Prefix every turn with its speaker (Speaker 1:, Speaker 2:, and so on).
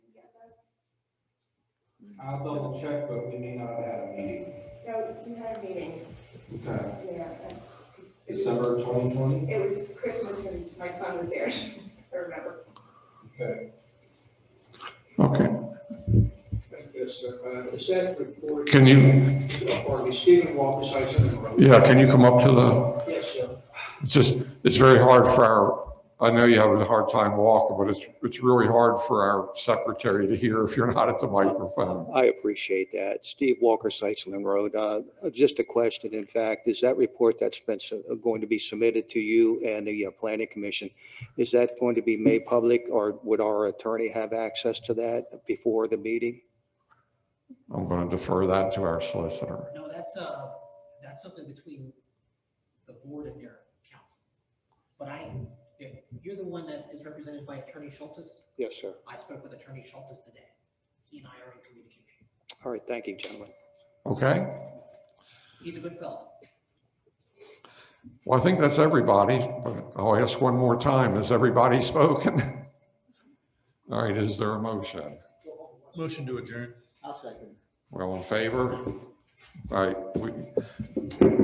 Speaker 1: I'll double check, but we may not have had a meeting.
Speaker 2: No, you had a meeting,
Speaker 1: Okay.
Speaker 2: yeah. uh, it was-
Speaker 1: December twenty twenty?
Speaker 2: It was Christmas and my son was there, I remember.
Speaker 1: Okay.
Speaker 3: Okay.
Speaker 4: Yes, uh, is that report?
Speaker 3: Can you,
Speaker 4: Or the Stephen Walker Sison Road?
Speaker 3: yeah, can you come up to the,
Speaker 4: Yes, sir.
Speaker 3: it's just, it's very hard for our, I know you have a hard time walking, but it's, it's really hard for our secretary to hear if you're not at the microphone.
Speaker 5: I appreciate that. Steve Walker, Seitzlin Road. Uh, Just a question, in fact, is that report that's been, su- uh, going to be submitted to you and the uh, Planning Commission, is that going to be made public or would our attorney have access to that before the meeting?
Speaker 3: I'm going to defer that to our solicitor.
Speaker 6: No, that's, uh, that's something between the board and their council. But I, you're the one that is represented by Attorney Schultes.
Speaker 5: Yes, sir.
Speaker 6: I spoke with Attorney Schultes today. He and I are in communication.
Speaker 5: All right, thank you, gentlemen.
Speaker 3: Okay?
Speaker 6: He's a good fellow.
Speaker 3: Well, I think that's everybody. but I'll ask one more time. Has everybody spoken? All right, is there a motion?
Speaker 7: Motion to adjourn.
Speaker 6: I'll second.
Speaker 3: Well, in favor? All right, we,